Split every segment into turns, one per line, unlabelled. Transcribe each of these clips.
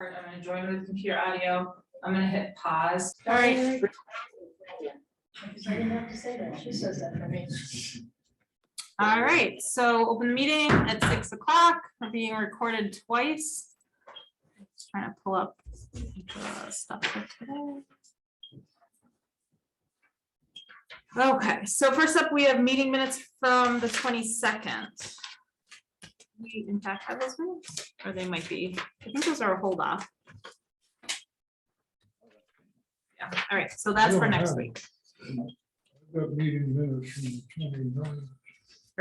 I'm gonna join with computer audio. I'm gonna hit pause.
All right.
I didn't have to say that, she says that for me.
All right, so open the meeting at six o'clock, we're being recorded twice. Just Trying to pull up the stuff for today. Okay, so first up, we have meeting minutes from the twenty-second. We in fact have those minutes, or they might be, I think those are a hold off. Yeah, all right, so that's for next week.
That meeting minutes from the 29th.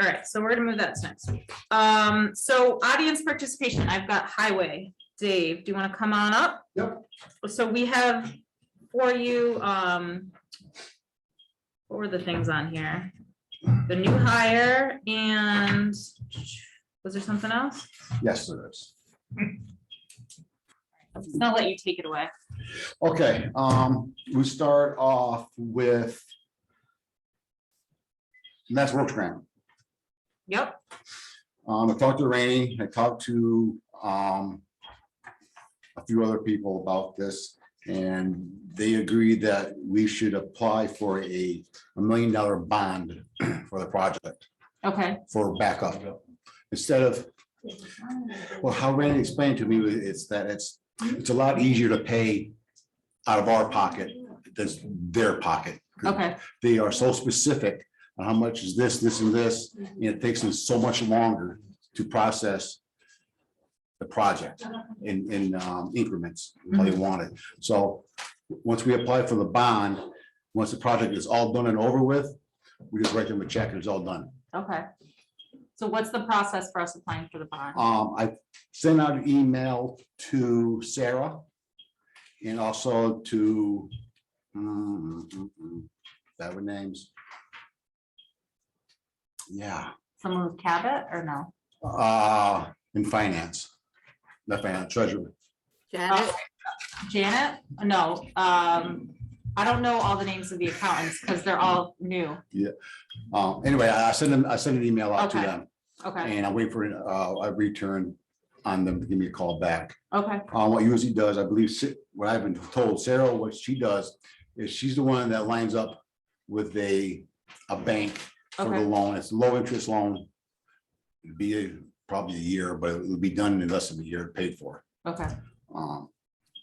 All right, so we're gonna move that to next week. Um, so audience participation, I've got highway. Dave, do you wanna come on up?
Yep.
So we have for you, um. What were the things on here? The new hire and was there something else?
Yes, there is.
I'll let you take it away.
Okay, um, we start off with. and that's works grant.
Yep,
Um, I talked to Rainey, I talked to, um. A few other people about this and they agreed that we should apply for a, a million dollar bond for the project,
okay,
for backup. Instead of Well, how Randy explained to me, it's that it's, it's a lot easier to pay out of our pocket than their pocket.
okay,
They are so specific on how much is this, this and this, and it takes them so much longer to process the project in, in um, increments, how they want it. So, once we apply for the bond, once the project is all done and over with, we just write them a check and it's all done.
okay. So what's the process for us applying for the bond?
Um, I sent out an email to Sarah. And also to. mm, mm, mm, mm, That were names. Yeah,
Someone with Cabot or no?
uh, in finance. Not finance, treasurer.
Janet? Janet? No, um, I don't know all the names of the accountants because they're all new.
Um, anyway, I I sent them, I sent an email out to
Okay.
them
Okay,
and I wait for uh, a return on them to give me a call back.
okay,
Uh, what usually does, I believe, Sa- what I've been told, Sarah, what she does is she's the one that lines up with a, a bank for the
Okay.
loan. It's low interest loan. It'd Be a- probably a year, but it would be done in less than a year paid for.
okay,
Um,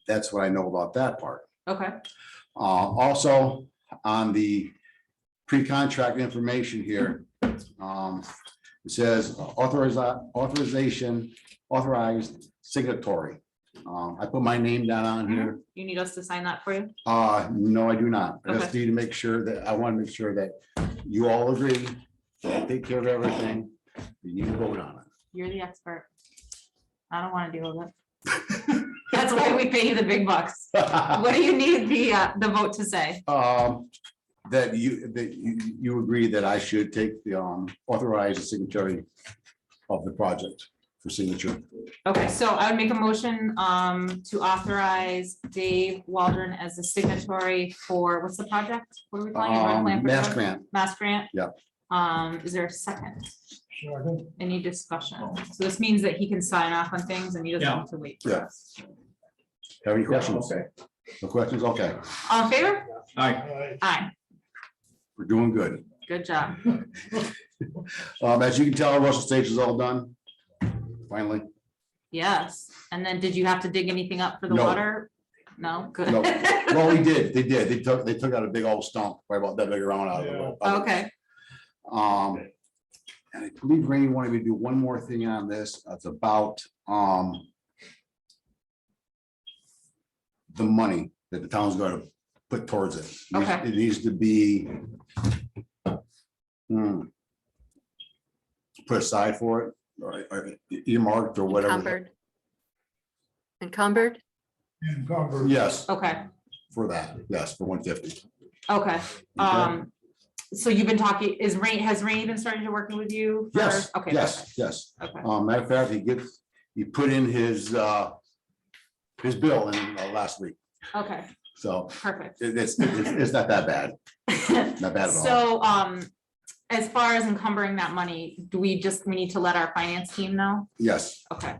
that's what I know about that part.
okay,
Uh, also, on the pre-contract information here, um, it says authorize, authorization, authorized signatory. Um, I put my name down on here.
you need us to sign that for you?
Uh, no, I do not. I just need to make sure that, I want to make sure that you all agree, that I take care of everything. You need to vote on it.
You're the expert. I don't want to deal with it. That's why we pay you the big bucks. What do you need the, uh, the vote to say?
Um, that you, that you, you agree that I should take the, um, authorize the signatory of the project for signature.
Okay, so I would make a motion, um, to authorize Dave Waldron as the signatory for, what's the project? What are we calling it? Road plan
Um,
for
Mass
Road-
grant,
Mass grant?
Yeah.
Um, is there a second?
So I think
Any discussion? So this means that he can sign off on things and he doesn't have to wait. for
Oh. Yeah.
us.
have any questions? No questions? Okay,
All in favor?
I-
Aye,
we're doing good.
good job.
Um, as you can tell, Russell Stage is all done. Finally,
Yes. And then did you have to dig anything up for the
No.
water? No, good.
No. well, we did, they did, they took, they took out a big old stump, right about that big around out of the road.
Okay,
Um, and I believe Rainy wanted me to do one more thing on this, it's about, um. The money that the town's gonna put towards it.
Okay.
It needs to be. hmm, Put aside for it, or, or earmarked or whatever,
Encumbered. Encumbered?
in Congress.
yes,
okay,
for that, yes, for one fifty.
okay. Um, so you've been talking, is Rain, has Rain been starting to working with you? for-
Yes,
Okay.
yes, yes.
Okay,
Um, matter of fact, he gets, he put in his, uh, his bill in uh, last week,
okay,
so
perfect.
it- it's, it's it's not that bad, not bad at all.
So, um, as far as encumbering that money, do we just, we need to let our finance team know?
Yes,
Okay.